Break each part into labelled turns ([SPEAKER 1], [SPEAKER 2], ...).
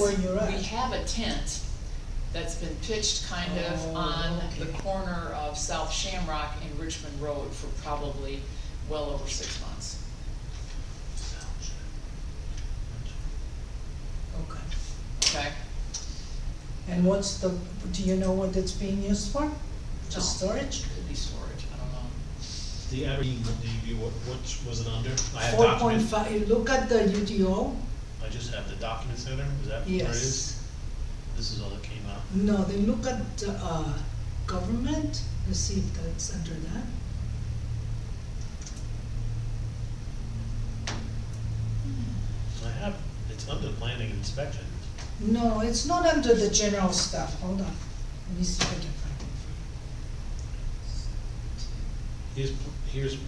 [SPEAKER 1] where you're at.
[SPEAKER 2] We have a tent that's been pitched kind of
[SPEAKER 1] Oh,
[SPEAKER 2] on the
[SPEAKER 1] okay.
[SPEAKER 2] corner of South Shamrock and Richmond Road for probably well over six months.
[SPEAKER 1] Okay.
[SPEAKER 2] Okay,
[SPEAKER 1] And what's the, do you know what it's being used for? Just
[SPEAKER 2] No.
[SPEAKER 1] storage?
[SPEAKER 2] could be storage, I don't know.
[SPEAKER 3] The Aberdeen DEP, what, what was it under? I have
[SPEAKER 1] Four point
[SPEAKER 3] documents,
[SPEAKER 1] five, look at the UDO,
[SPEAKER 3] I just have the documents there, is that where it is?
[SPEAKER 1] yes.
[SPEAKER 3] This is all that came out.
[SPEAKER 1] No, they look at, uh, government, you see if that's under that.
[SPEAKER 3] I have, it's under planning and inspection.
[SPEAKER 1] No, it's not under the general stuff, hold on, let me see if I can find it.
[SPEAKER 3] Here's, here's,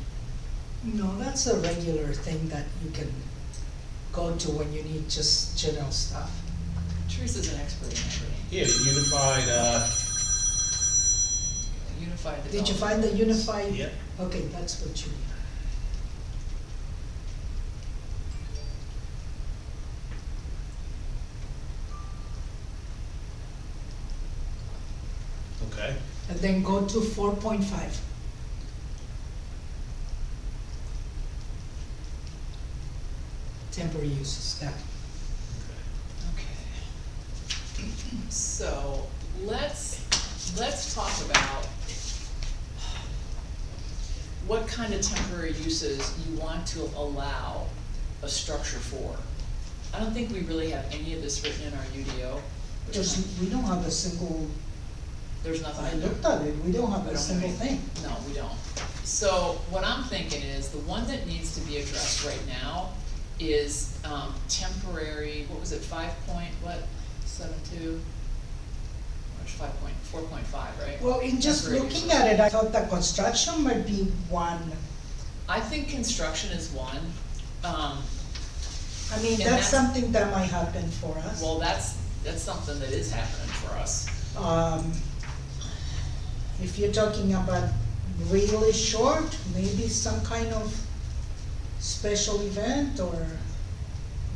[SPEAKER 1] No, that's a regular thing that you can go to when you need just general stuff.
[SPEAKER 2] Teresa's an expert in everything,
[SPEAKER 3] yeah, the unified, uh,
[SPEAKER 2] unified development.
[SPEAKER 3] Oh.
[SPEAKER 1] Did you find the unified?
[SPEAKER 3] Yep.
[SPEAKER 1] Okay, that's what you mean.
[SPEAKER 3] okay,
[SPEAKER 1] And then go to four point five. Temporary uses, that.
[SPEAKER 3] okay.
[SPEAKER 2] Okay. So, let's, let's talk about what kind of temporary uses you want to allow a structure for. I don't think we really have any of this written in our UDO. which
[SPEAKER 1] There's,
[SPEAKER 2] I-
[SPEAKER 1] we don't have a single,
[SPEAKER 2] There's
[SPEAKER 1] I
[SPEAKER 2] nothing in
[SPEAKER 1] looked
[SPEAKER 2] there.
[SPEAKER 1] at it, we don't have
[SPEAKER 2] We
[SPEAKER 1] a
[SPEAKER 2] don't
[SPEAKER 1] single
[SPEAKER 2] have
[SPEAKER 1] thing.
[SPEAKER 2] No, we don't. So what I'm thinking is, the one that needs to be addressed right now is, um, temporary, what was it, five point, what, seven two? Or it's five point, four point five, right?
[SPEAKER 1] Well, in just
[SPEAKER 2] Temporary
[SPEAKER 1] looking
[SPEAKER 2] uses.
[SPEAKER 1] at it, I thought that construction might be one,
[SPEAKER 2] I think construction is one, um,
[SPEAKER 1] I mean, that's
[SPEAKER 2] And that's-
[SPEAKER 1] something that might happen for us.
[SPEAKER 2] well, that's, that's something that is happening for us.
[SPEAKER 1] Um, if you're talking about really short, maybe some kind of special event or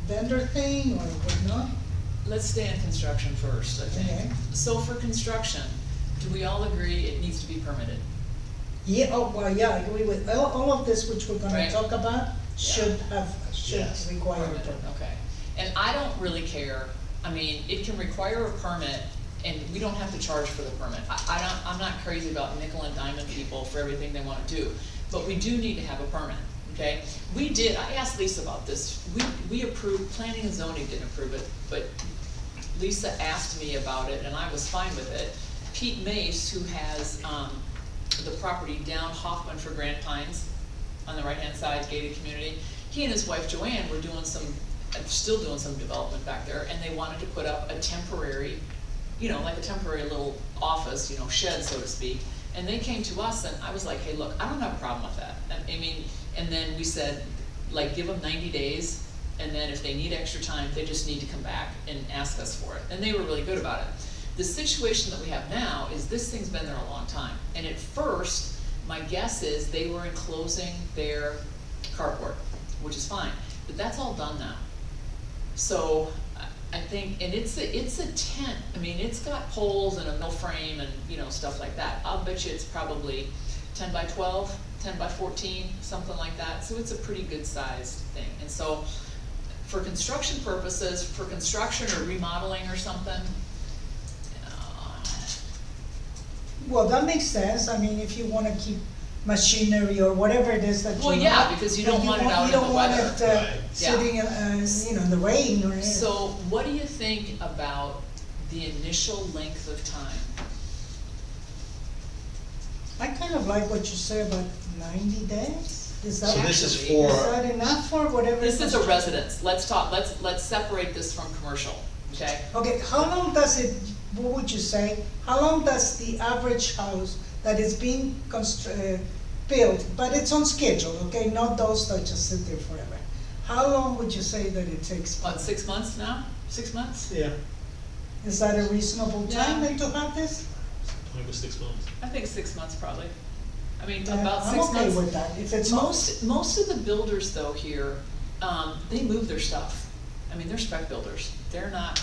[SPEAKER 1] vendor thing or whatnot.
[SPEAKER 2] Let's stay in construction first, I
[SPEAKER 1] Okay.
[SPEAKER 2] think. So for construction, do we all agree it needs to be permitted?
[SPEAKER 1] Yeah, oh, well, yeah, I agree with, all, all of this which we're gonna
[SPEAKER 2] Right.
[SPEAKER 1] talk about should have, should
[SPEAKER 3] Yes.
[SPEAKER 1] require a
[SPEAKER 2] Permit,
[SPEAKER 1] permit.
[SPEAKER 2] Okay, and I don't really care, I mean, it can require a permit, and we don't have to charge for the permit. I, I don't, I'm not crazy about nickel and diamond people for everything they wanna do, but we do need to have a permit, okay? We did, I asked Lisa about this, we, we approved, planning and zoning didn't approve it, but Lisa asked me about it, and I was fine with it. Pete Mace, who has, um, the property down Hoffman for Grand Pines, on the right-hand side, gated community, he and his wife Joanne were doing some, uh, still doing some development back there, and they wanted to put up a temporary, you know, like a temporary little office, you know, shed, so to speak. And they came to us, and I was like, hey, look, I don't have a problem with that, I, I mean, and then we said, like, give them ninety days, and then if they need extra time, they just need to come back and ask us for it. And they were really good about it. The situation that we have now is this thing's been there a long time. And at first, my guess is they were enclosing their carport, which is fine, but that's all done now. So I- I think, and it's a, it's a tent, I mean, it's got poles and a mill frame and, you know, stuff like that. I'll bet you it's probably ten by 12, 10 by fourteen, something like that, so it's a pretty good sized thing. And so for construction purposes, for construction or remodeling or something, uh,
[SPEAKER 1] Well, that makes sense, I mean, if you wanna keep machinery or whatever it is that you
[SPEAKER 2] Well,
[SPEAKER 1] want.
[SPEAKER 2] yeah, because you
[SPEAKER 1] that
[SPEAKER 2] don't want it out in the
[SPEAKER 1] You
[SPEAKER 2] weather.
[SPEAKER 1] don't want it, uh,
[SPEAKER 3] Right.
[SPEAKER 2] Yeah.
[SPEAKER 1] sitting, uh, you know, in the rain or. anything.
[SPEAKER 2] So what do you think about the initial length of time?
[SPEAKER 1] I kind of like what you say about ninety days, is that,
[SPEAKER 3] So this is
[SPEAKER 2] Actually,
[SPEAKER 3] for.
[SPEAKER 1] is that enough for whatever?
[SPEAKER 2] This is a
[SPEAKER 1] construction-
[SPEAKER 2] residence, let's talk, let's, let's separate this from commercial, okay?
[SPEAKER 1] Okay, how long does it, what would you say, how long does the average house that is being constru- uh, built, but it's on schedule, okay, not those that just sit there forever? How long would you say that it takes?
[SPEAKER 2] What, six months now? Six months?
[SPEAKER 3] Yeah.
[SPEAKER 1] Is that a reasonable time
[SPEAKER 2] Yeah.
[SPEAKER 1] then to have this?
[SPEAKER 3] It was six months.
[SPEAKER 2] I think six months probably. I mean,
[SPEAKER 1] Yeah,
[SPEAKER 2] about six months.
[SPEAKER 1] I'm okay with that, if it's most,
[SPEAKER 2] Most, most of the builders though here, um, they move their stuff. I mean, they're spec builders, they're not